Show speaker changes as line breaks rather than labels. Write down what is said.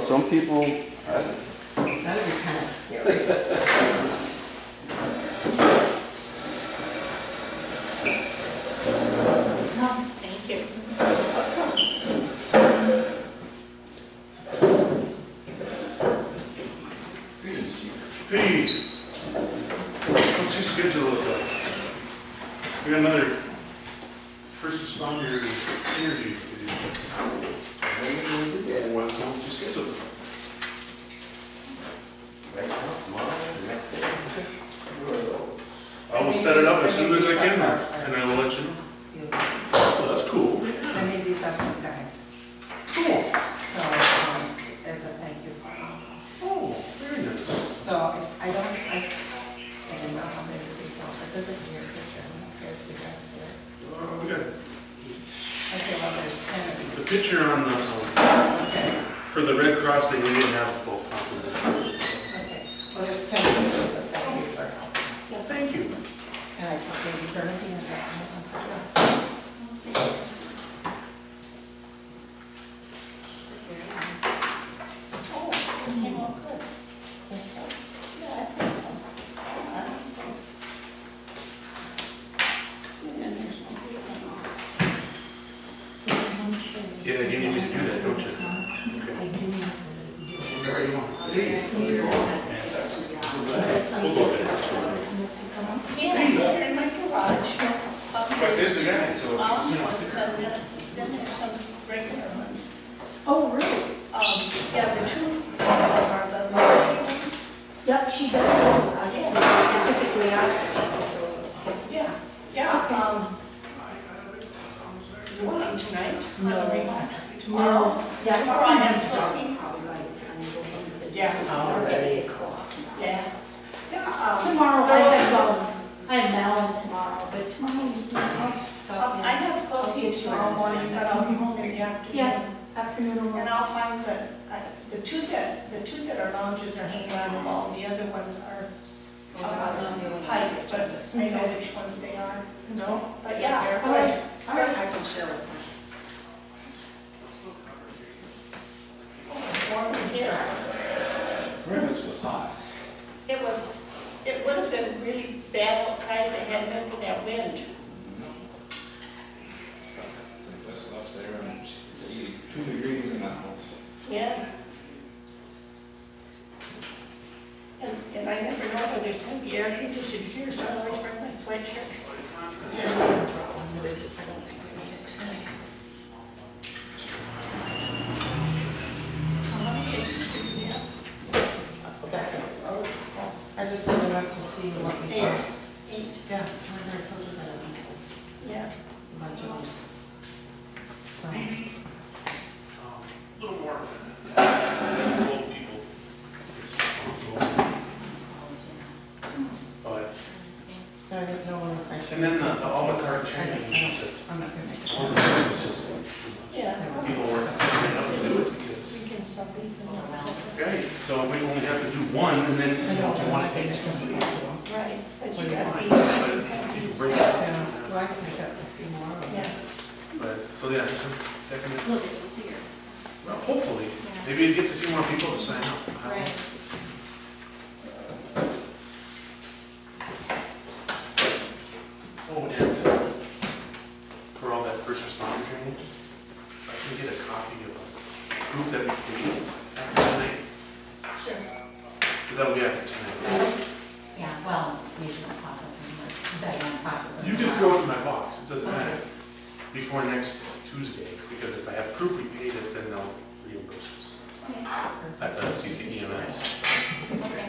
some people, I-
That would be kind of scary. No, thank you.
Hey, what's your schedule look like? We got another first responder interview to do. What- What's your schedule? look like?
Right now, tomorrow, the next day.
I will set it up as soon as I can, and I will let you know.
You-
Well, That's cool.
I need these up for you guys,
Cool.
so, um, as a thank you.
Oh, very nice.
So I I don't, I, I don't know how many people, but this is your picture, I guess we got six.
Uh, We got
Okay, well, there's ten of you,
the picture on the, um,
okay,
for the Red Cross thing, we didn't have a full complement.
okay. Well, there's ten pictures of thank you for helping us.
Well, thank you.
And I took Lady Bernadine and that one for you.
Oh, it came out good. Think so? Yeah, I think so. I don't think. See, and there's one big one.
Yeah, you need me to do that, don't you?
I do need to
Whatever you want. Hey,
do that.
We'll go ahead.
Yeah, they're in my garage.
But there's the guy, so.
Found ones, and then, then there's some regular ones. Oh, really? Um, yeah, the two are the larger ones.
Yep, she does, I specifically asked.
Yeah, yeah, um. You want them tonight? No. Tomorrow?
Yeah.
Tomorrow Oh. I have E trustee. Yeah.
Already.
Yeah. Yeah, um.
Tomorrow, I have, um, I have Malin tomorrow, but tomorrow,
um, I have coffee tomorrow morning, but I'll be home in the afternoon.
yeah, afternoon.
And I'll find the, I- the two that, the two that are lounges are hanging on the wall, the other ones are um, high, but I know which ones they are.
No?
But yeah,
They're
all right,
good.
all right.
I can share with you.
It's warm in here.
Grimace was hot.
It was, it would have been really bad outside if it hadn't been for that wind.
It's like this up there and it's 82 degrees in the house.
Yeah. And, and I never know whether it's gonna be air conditioned here, so I always bring my sweatshirt. Eight,
Oh, That's it. Oh, I just didn't enough to see what we had.
eight,
Yeah. I heard a little bit of this,
yeah.
a bunch of them. So,
Maybe, um, a little more than old people is responsible. But,
so I didn't know when I should.
and then the, the à la carte training, just,
I'm not gonna
all
make
the
it.
time was just,
Yeah.
people were, they have to do it because,
We can stop these and all
okay, so if we only have to do one, and then if you wanna take two,
that. Right,
What
but
do you
you gotta be.
but it's, you can break it
Yeah,
up.
well, I can pick up a few more. of them.
Yeah.
But, so yeah, so definitely,
Look, it's here.
well, hopefully, maybe it gets a few more people to sign up. I don't know.
Right.
Oh, and for all that first responder training, if I can get a copy of a proof that we paid after tonight,
Sure.
because that'll be after tonight.
Yeah, well, regional processing, or Diane processing.
You can throw it in my box, it doesn't matter, before next Tuesday, because if I have proof
E
E, we paid it, then they'll reimburse us. At the CCEMS.
Okay.
Oh.